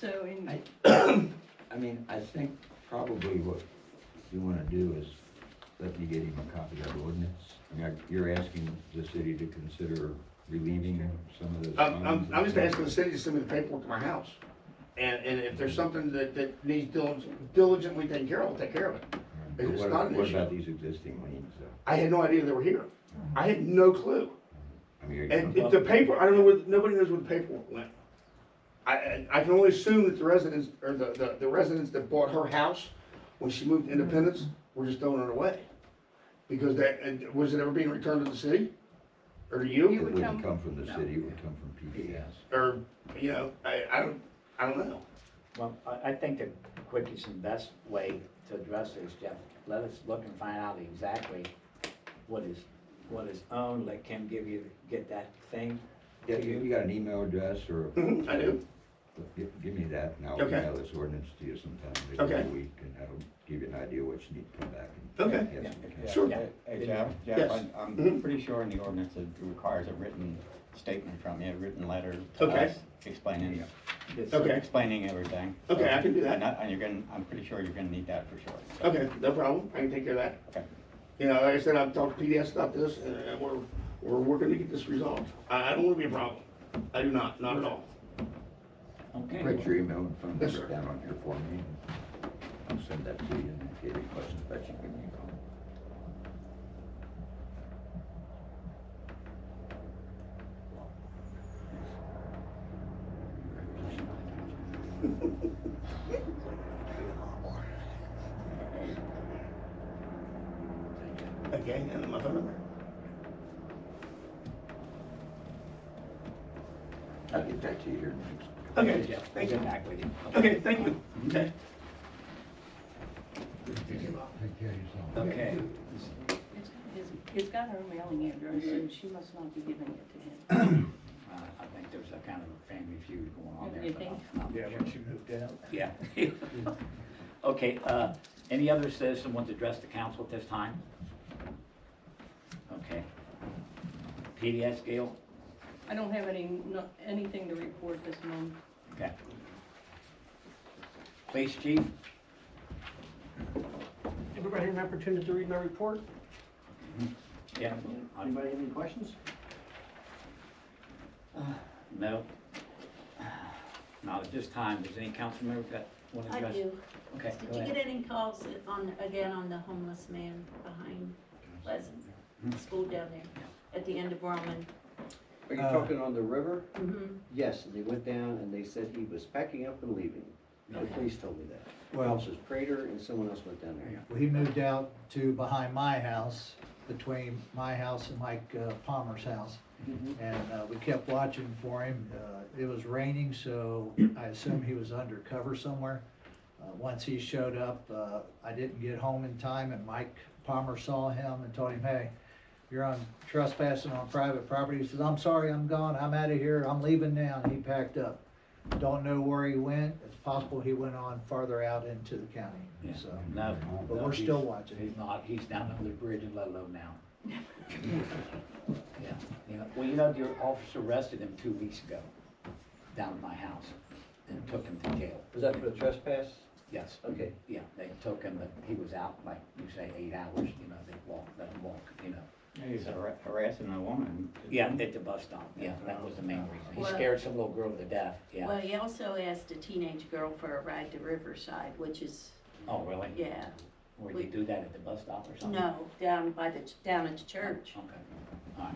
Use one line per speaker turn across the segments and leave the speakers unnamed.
So in,
I- I mean, I think probably what you wanna do is let me get him a copy of the ordinance. I mean, I- you're asking the city to consider relieving some of those.
I'm, I'm,
funds.
I'm just asking the city to send me the paperwork to my house. And, and if there's something that, that needs dil- diligently taken care of, I'll take care of it.
But
It's
what-
not an
What
issue.
about these existing liens though?
I had no idea they were here. I had no clue.
I mean, are
And
you-
it- the paper, I don't know where, nobody knows where the paperwork went. I, I, I can only assume that the residents, or the, the, the residents that bought her house when she moved to Independence were just throwing it away. Because that, and was it ever being returned to the city? Or to
it
You-
you?
would
wouldn't
come-
come from the
no.
city, it would come from PBS.
Or, you know, I, I don't, I don't know.
Well, I, I think the quickest and best way to address this, Jeff, let us look and find out exactly what is, what is owned, let Kim give you, get that thing
Yeah,
to
you
you.
you got an email address or?
Mhm, I do.
Give, give me that and I'll
Okay.
email this ordinance to you sometime, maybe
Okay.
in a week, and that'll give you an idea what you need to come back and.
Okay.
and get some
Yeah.
kind of-
Yeah,
Sure.
hey- Hey, Jeff,
Yes.
Jeff, I'm, I'm
Mhm.
pretty sure in the ordinance it requires a written statement from you, a written letter to
Okay.
us explaining,
This-
Okay.
explaining everything.
Okay, I can do that.
And I- And you're gonna, I'm pretty sure you're gonna need that for sure. so,
Okay, no problem. I can take care of that.
Okay.
You know, like I said, I've talked to PDS about this and uh, we're, we're working to get this resolved. I, I don't want to be a problem. I do not, not at all.
Okay,
Write your email and phone
Yes,
number
sir.
down on here for me. and I'll send that to you and if you have any questions about you, give me a call.
Okay, and then my phone number.
I'll get that to you here in the next.
Okay,
Jeff, we'll
thank you.
get back with you.
Okay, thank you. Okay.
Okay,
it's, it's, it's got her mailing address, so she must not be giving it to him.
uh, I think there's a kind of a family feud going on
Oh,
there.
you
but I'm-
Yeah, when she moved out.
Yeah. Okay, uh, any other citizen want to address the council at this time? Okay. PDS, Gail?
I don't have any, no- anything to report this month.
Okay. Police chief?
Everybody had an opportunity to read my report?
Mm-hmm. Yeah. I'm-
Anybody have any questions?
Uh, No. Uh, Not at this time. Does any council member got, want to
I
address?
do.
Okay,
Did
go
you
ahead.
get any calls on, again, on the homeless man behind Pleasant,
Mm-hmm.
the school down there, at the end of Roman?
Are you
Uh,
talking on the river?
Mhm.
Yes, and they went down and they said he was packing up and leaving. The
Okay.
police told me that.
Well-
This was Prater and someone else went down there.
Well, he moved out to behind my house, between my house and Mike uh, Palmer's house. And uh, we kept watching for him. Uh, It was raining, so I assume he was undercover somewhere. Uh, Once he showed up, uh, I didn't get home in time and Mike Palmer saw him and told him, hey, you're on trespassing on private property. He says, I'm sorry, I'm gone, I'm out of here, I'm leaving now. And he packed up. Don't know where he went. It's possible he went on farther out into the county,
Yeah.
so.
No.
But
no,
we're still
he's-
watching.
He's not, he's down under the bridge in Ludlow now. Yeah, you know, well, you know, your officer arrested him two weeks ago, down at my house, and took him to jail.
Was that for the trespass?
Yes,
Okay.
yeah, they took him, but he was out, like you say, eight hours, you know, they walked, let him walk, you know.
He's har- harassing a woman.
Yeah, at the bus stop, yeah, that was the main reason. He scared some little girl to death, yeah.
Well, he also asked a teenage girl for a ride to Riverside, which is,
Oh, really?
yeah,
Would you do that at the bus stop or something?
no, down by the, ch- down at the church.
Okay,
Hmm.
all right.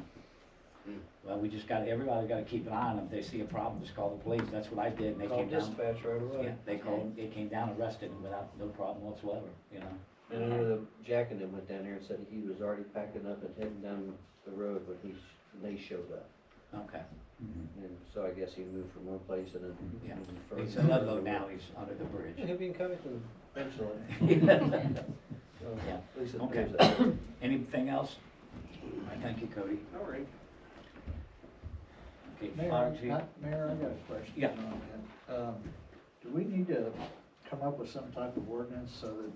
Well, we just got, everybody got to keep an eye on them. If they see a problem, just call the police. That's what I did, and they
Called
came down.
dispatch right
Yeah,
away.
they called, they came down, arrested him without, no problem whatsoever, you know?
And I know the Jack and them went down there and said he was already packing up and heading down the road when he, sh- when they showed up.
Okay.
Mm-hmm.
And so I guess he moved from one place and then.
Yeah.
moved further.
He's in Ludlow now, he's under the
Yeah,
bridge.
He'll be in Covington eventually. So,
Yeah.
At least it
Okay.
appears that way.
Anything else? All right, Thank you, Cody.
All right.
Okay,
Mayor,
fire
I-
chief.
I- Mayor, I got a question.
Yeah.
on that. Um, Do we need to come up with some type of ordinance so that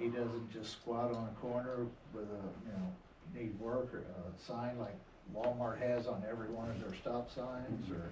he doesn't just squat on a corner with a, you know, need work or a sign like Walmart has on every one of their stop signs or?